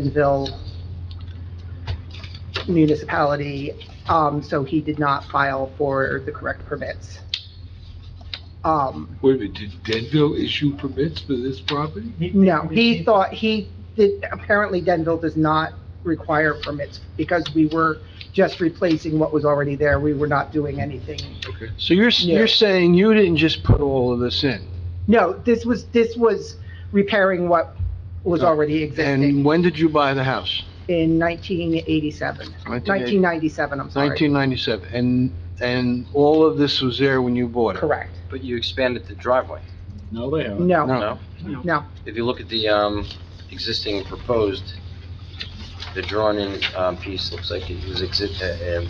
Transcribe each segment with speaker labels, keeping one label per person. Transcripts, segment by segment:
Speaker 1: Denville municipality, um, so he did not file for the correct permits. Um,
Speaker 2: Wait a minute, did Denville issue permits for this property?
Speaker 1: no, he thought, he, did- apparently Denville does not require permits because we were just replacing what was already there. We were not doing anything.
Speaker 2: Okay.
Speaker 3: So you're, s-
Speaker 1: Yeah.
Speaker 3: you're saying you didn't just put all of this in?
Speaker 1: No, this was, this was repairing what was already
Speaker 3: And
Speaker 1: existing
Speaker 3: when did you buy the house?
Speaker 1: in 1987, 1997, I'm sorry.
Speaker 3: 1997, and, and all of this was there when you bought it?
Speaker 1: Correct.
Speaker 4: But you expanded the driveway,
Speaker 5: No, they haven't.
Speaker 1: No,
Speaker 3: No,
Speaker 4: no?
Speaker 1: no.
Speaker 4: If you look at the, um, existing proposed, the drawn-in, um, piece looks like it was exi- uh, um,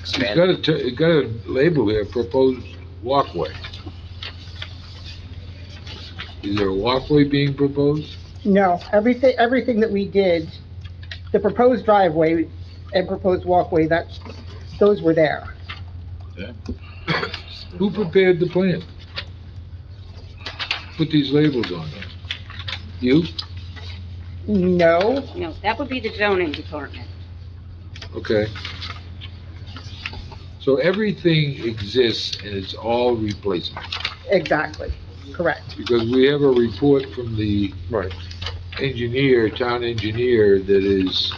Speaker 2: It's got
Speaker 4: expanded.
Speaker 2: a, t- it's got a label there, proposed walkway. Is there a walkway being proposed?
Speaker 1: No, everything, everything that we did, the proposed driveway and proposed walkway, that, those were there.
Speaker 2: Who prepared the plan? Put these labels on it? You?
Speaker 1: No,
Speaker 6: No, that would be the zoning department.
Speaker 2: Okay. So everything exists and it's all replacement,
Speaker 1: exactly, correct.
Speaker 2: because we have a report from the
Speaker 3: right.
Speaker 2: engineer, town engineer, that is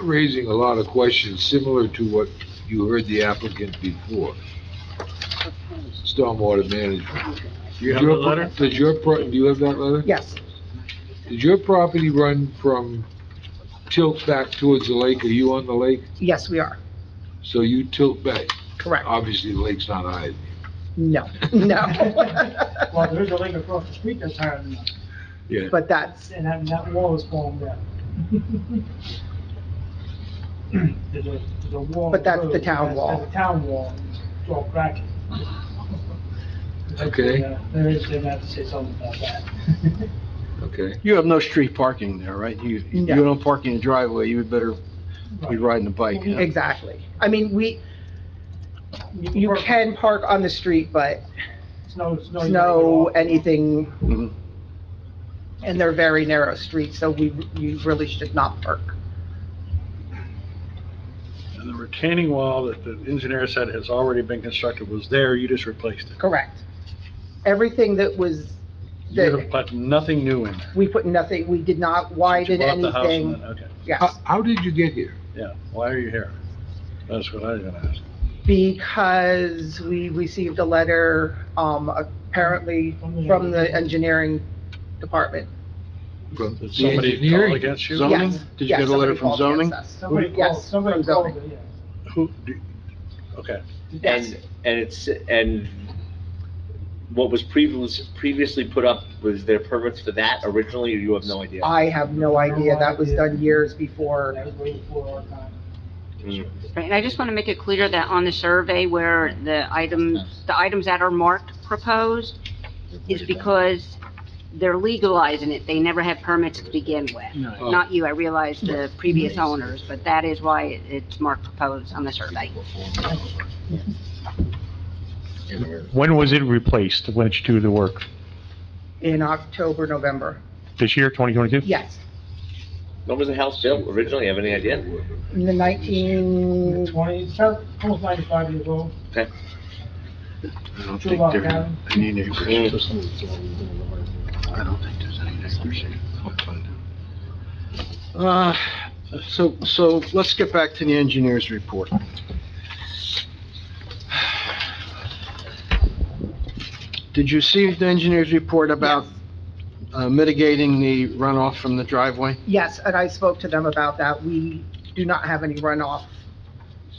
Speaker 2: raising a lot of questions similar to what you heard the applicant before, stormwater management.
Speaker 5: Do you have the letter?
Speaker 2: Does your, pro- do you have that letter?
Speaker 1: Yes,
Speaker 2: Does your property run from tilt back towards the lake? Are you on the lake?
Speaker 1: yes, we are,
Speaker 2: So you tilt back.
Speaker 1: correct.
Speaker 7: Uh,
Speaker 2: Obviously, the lake's not high.
Speaker 1: No, no.
Speaker 8: Well, there's a lake across the street that's higher than us,
Speaker 2: Yeah.
Speaker 1: But that's,
Speaker 8: and that, that wall is falling down. There's a, there's a wall.
Speaker 1: But that's the
Speaker 8: road,
Speaker 1: town
Speaker 8: that's-
Speaker 1: wall.
Speaker 8: That's a town wall, and it's all cracking.
Speaker 2: Okay.
Speaker 8: Yeah, There is, they have to say something about that.
Speaker 2: Okay.
Speaker 3: You have no street parking there, right? You, you
Speaker 1: No.
Speaker 3: don't park in the driveway, you would better be riding a bike. you know?
Speaker 1: exactly. I mean, we, you
Speaker 8: park-
Speaker 1: can park on the street, but
Speaker 8: Snow, snow. you
Speaker 1: snow,
Speaker 8: can get
Speaker 1: anything,
Speaker 3: Mhm.
Speaker 1: and they're very narrow streets, so we, you really should not park.
Speaker 7: And the retaining wall that the engineer said has already been constructed was there, you just replaced it.
Speaker 1: Correct. Everything that was,
Speaker 7: You
Speaker 1: that,
Speaker 7: have put nothing new in there.
Speaker 1: we put nothing, we did not widen
Speaker 7: You bought the house and
Speaker 1: anything.
Speaker 7: then- Okay,
Speaker 8: Uh,
Speaker 2: How,
Speaker 1: Yes,
Speaker 2: how did you get here?
Speaker 7: yeah, why are you here? That's what I was gonna ask.
Speaker 1: because we received a letter, um, apparently from the engineering department.
Speaker 2: From
Speaker 7: Did
Speaker 2: the
Speaker 7: somebody call
Speaker 2: engineering?
Speaker 7: against you?
Speaker 3: Zoning?
Speaker 1: Yes,
Speaker 3: Did you
Speaker 1: yes,
Speaker 3: get a letter
Speaker 1: somebody
Speaker 3: from
Speaker 1: called,
Speaker 3: zoning?
Speaker 1: yes, yes.
Speaker 8: Somebody called,
Speaker 1: Yes,
Speaker 8: somebody
Speaker 1: from
Speaker 8: called
Speaker 1: zoning.
Speaker 8: it, yeah.
Speaker 7: Who, do- okay,
Speaker 1: Yes,
Speaker 9: And, and it's, and what was previously, previously put up, was there permits for that originally, or you have no idea?
Speaker 1: I have no idea. That was done years
Speaker 8: That
Speaker 1: before.
Speaker 8: was way before our time.
Speaker 9: Mm.
Speaker 6: Right, and I just want to make it clear that on the survey where the items, the items that are marked proposed is because they're legalizing it. They never had permits to begin with.
Speaker 2: Oh.
Speaker 6: Not you, I realize the previous owners, but that is why it- it's marked proposed on the survey.
Speaker 10: When was it replaced, when did you do the work?
Speaker 1: In October, November.
Speaker 10: This year, 2022?
Speaker 1: Yes,
Speaker 9: When was the house built originally, have any idea?
Speaker 1: in the nineteen,
Speaker 8: Twenty, it's about- almost ninety-five years old.
Speaker 3: I don't
Speaker 8: Two
Speaker 3: think
Speaker 8: block
Speaker 3: there are
Speaker 8: down.
Speaker 3: any neighbors.
Speaker 9: Mm.
Speaker 3: I don't think there's any neighbors here. I'll find out. Uh, so, so let's get back to the engineer's report. Did you see the engineer's report about uh, mitigating the runoff from the driveway?
Speaker 1: yes, and I spoke to them about that. We do not have any runoff.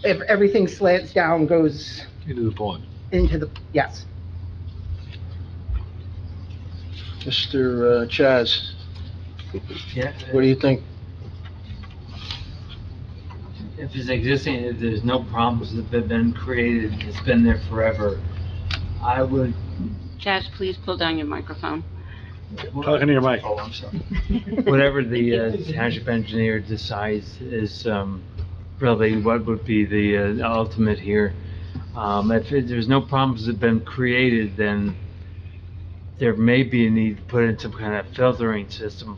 Speaker 1: If everything slants down, goes
Speaker 2: Into the pond.
Speaker 1: into the, yes.
Speaker 3: Mr. uh, Chaz? What do you think?
Speaker 11: if it's existing, if there's no problems that have been created, it's been there forever, I would.
Speaker 6: Jazz, please pull down your microphone.
Speaker 7: talking to your mic.
Speaker 11: Oh, I'm sorry. Whatever the uh, township engineer decides is um, really what would be the uh, ultimate here. Um, If it- there's no problems that have been created, then there may be a need to put in some kind of filtering system,